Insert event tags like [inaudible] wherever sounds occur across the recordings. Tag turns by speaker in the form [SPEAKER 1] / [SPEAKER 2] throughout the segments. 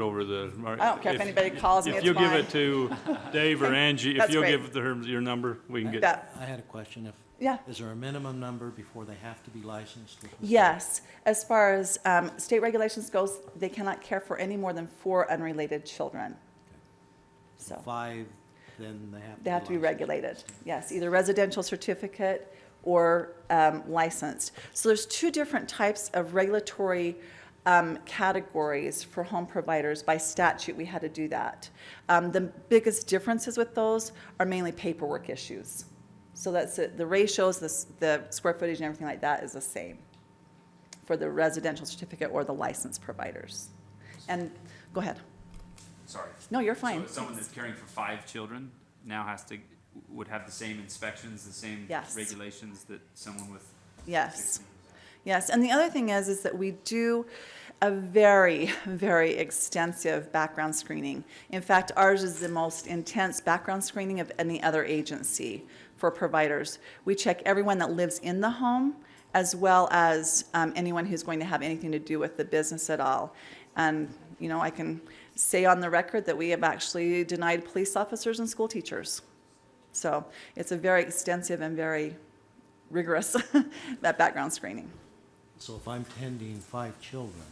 [SPEAKER 1] over the.
[SPEAKER 2] I don't care if anybody calls me,
[SPEAKER 1] If
[SPEAKER 2] it's
[SPEAKER 1] you'll give
[SPEAKER 2] fine.
[SPEAKER 1] it to
[SPEAKER 2] [laughs]
[SPEAKER 1] Dave or Angie, if
[SPEAKER 2] That's
[SPEAKER 1] you'll
[SPEAKER 2] great.
[SPEAKER 1] give her your number, we can get,
[SPEAKER 2] That-
[SPEAKER 3] I had a question. If
[SPEAKER 2] Yeah.
[SPEAKER 3] Is there a minimum number before they have to be licensed? with the state?
[SPEAKER 2] Yes, as far as um, state regulations goes, they cannot care for any more than four unrelated children. So
[SPEAKER 3] Five, then they have to be
[SPEAKER 2] they have to be
[SPEAKER 3] licensed.
[SPEAKER 2] regulated, yes, either residential certificate or um, licensed. So there's two different types of regulatory um, categories for home providers. By statute, we had to do that. Um, The biggest differences with those are mainly paperwork issues. So that's, it. the ratios, the s- the square footage and everything like that is the same for the residential certificate or the licensed providers. And, go ahead.
[SPEAKER 4] Sorry.
[SPEAKER 2] No, you're
[SPEAKER 4] So
[SPEAKER 2] fine.
[SPEAKER 4] someone that's caring for five children now has to, would have the same inspections, the same
[SPEAKER 2] Yes.
[SPEAKER 4] regulations that someone with
[SPEAKER 2] Yes.
[SPEAKER 4] sixteen?
[SPEAKER 2] Yes, and the other thing is, is that we do a very, very extensive background screening. In fact, ours is the most intense background screening of any other agency for providers. We check everyone that lives in the home, as well as um, anyone who's going to have anything to do with the business at all. And, you know, I can say on the record that we have actually denied police officers and school teachers. So it's a very extensive and very rigorous [laughs] that background screening.
[SPEAKER 3] So if I'm tending five children,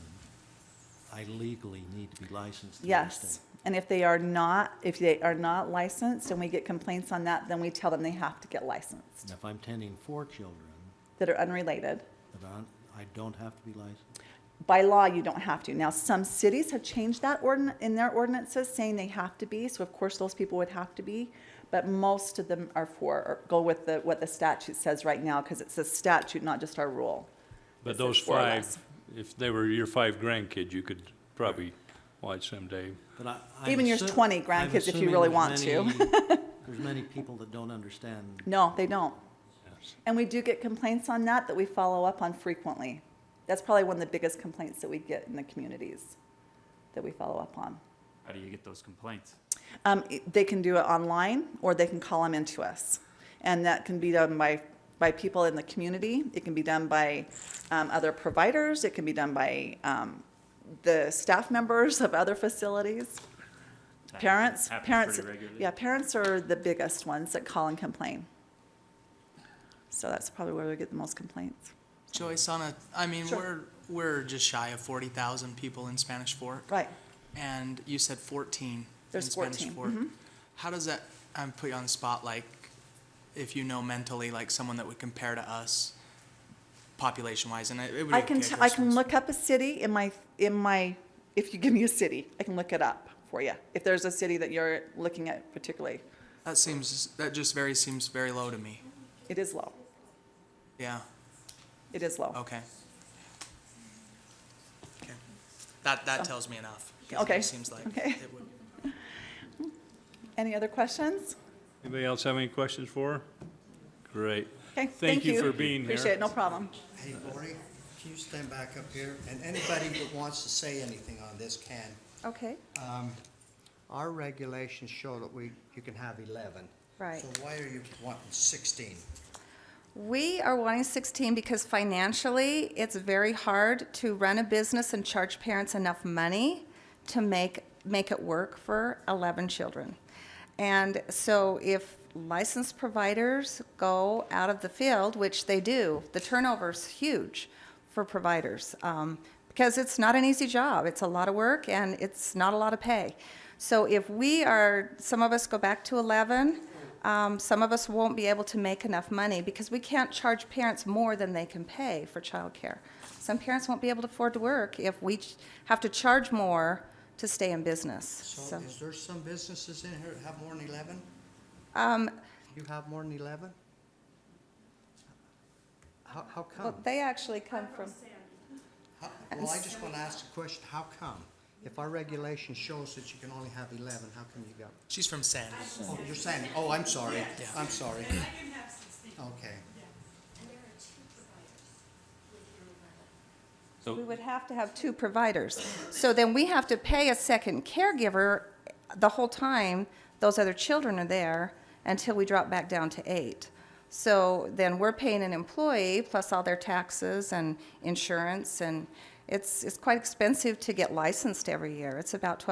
[SPEAKER 3] I legally need to be licensed. to the
[SPEAKER 2] Yes.
[SPEAKER 3] state.
[SPEAKER 2] And if they are not, if they are not licensed and we get complaints on that, then we tell them they have to get licensed,
[SPEAKER 3] And if I'm tending four children,
[SPEAKER 2] that are unrelated.
[SPEAKER 3] then I'm- I don't have to be licensed?
[SPEAKER 2] By law, you don't have to. Now, some cities have changed that ordin, in their ordinances saying they have to be, so of course those people would have to be. But most of them are for, or go with the, what the statute says right now, because it's a statute, not just our rule.
[SPEAKER 1] but
[SPEAKER 2] This is
[SPEAKER 1] those
[SPEAKER 2] four or
[SPEAKER 1] five,
[SPEAKER 2] less.
[SPEAKER 1] if they were your five grandkids, you could probably watch them, Dave.
[SPEAKER 3] But I- I'm
[SPEAKER 2] Even your
[SPEAKER 3] assu-
[SPEAKER 2] 20 grandkids if
[SPEAKER 3] I'm
[SPEAKER 2] you
[SPEAKER 3] assuming
[SPEAKER 2] really
[SPEAKER 3] there's
[SPEAKER 2] want to. [laughs]
[SPEAKER 3] many- There's many people that don't understand.
[SPEAKER 2] No, they don't. And we do get complaints on that that we follow up on frequently. That's probably one of the biggest complaints that we get in the communities that we follow up on.
[SPEAKER 4] How do you get those complaints?
[SPEAKER 2] Um, i- they can do it online or they can call them into us. And that can be done by, by people in the community. It can be done by um, other providers. It can be done by um, the staff members of other facilities.
[SPEAKER 4] That
[SPEAKER 2] Parents,
[SPEAKER 4] happens
[SPEAKER 2] parents,
[SPEAKER 4] pretty regularly.
[SPEAKER 2] yeah, parents are the biggest ones that call and complain. So that's probably where we get the most complaints.
[SPEAKER 5] Joyce, on a, I mean,
[SPEAKER 2] Sure.
[SPEAKER 5] we're we're just shy of forty thousand people in Spanish Fort,
[SPEAKER 2] Right.
[SPEAKER 5] and you said fourteen
[SPEAKER 2] There's Mm-hmm.
[SPEAKER 5] in Spanish
[SPEAKER 2] 14,
[SPEAKER 5] Fort. How does that? I'm put you on the spot. Like, if you know mentally, like someone that would compare to us, population-wise, and it, it would.
[SPEAKER 2] I
[SPEAKER 5] be
[SPEAKER 2] can,
[SPEAKER 5] okay
[SPEAKER 2] t-
[SPEAKER 5] if
[SPEAKER 2] I
[SPEAKER 5] this
[SPEAKER 2] can
[SPEAKER 5] was-
[SPEAKER 2] look up a city in my, in my, if you give me a city, I can look it up for you. If there's a city that you're looking at particularly,
[SPEAKER 5] That seems that just very seems very low to me.
[SPEAKER 2] it is low.
[SPEAKER 5] Yeah.
[SPEAKER 2] It is low.
[SPEAKER 5] Okay. Okay. That that tells me enough. 'cause it
[SPEAKER 2] Okay.
[SPEAKER 5] Seems like
[SPEAKER 2] Okay.
[SPEAKER 5] it would.
[SPEAKER 2] Any other questions?
[SPEAKER 1] Anybody else have any questions for her? Great.
[SPEAKER 2] Okay,
[SPEAKER 1] Thank you for being here.
[SPEAKER 2] Appreciate it, no problem.
[SPEAKER 6] Hey, Lori, can you stand back up here? And anybody that wants to say anything on this can. Um,
[SPEAKER 2] Okay,
[SPEAKER 6] Our regulations show that we, you can have 11.
[SPEAKER 7] Right.
[SPEAKER 6] So why are you wanting 16?
[SPEAKER 7] We are wanting 16 because financially, it's very hard to run a business and charge parents enough money to make, make it work for 11 children. And so if licensed providers go out of the field, which they do, the turnover's huge for providers um, because it's not an easy job. It's a lot of work and it's not a lot of pay. So if we are, some of us go back to 11, um, some of us won't be able to make enough money because we can't charge parents more than they can pay for childcare. Some parents won't be able to afford to work if we ch- have to charge more to stay in business.
[SPEAKER 6] So
[SPEAKER 7] So,
[SPEAKER 6] is there some businesses in here that have more than 11?
[SPEAKER 7] um,
[SPEAKER 6] You have more than 11? How, how come?
[SPEAKER 7] well, they actually come from.
[SPEAKER 6] How- Well, I just want to ask the question, how come? If our regulation shows that you can only have 11, how come you got?
[SPEAKER 5] She's from Sandy.
[SPEAKER 6] Oh, you're saying, oh, I'm sorry, I'm sorry. Okay.
[SPEAKER 7] We
[SPEAKER 4] So
[SPEAKER 7] would have to have two providers. So then we have to pay a second caregiver the whole time those other children are there until we drop back down to eight. So then we're paying an employee plus all their taxes and insurance and, It's, it's quite expensive to get licensed every year. It's about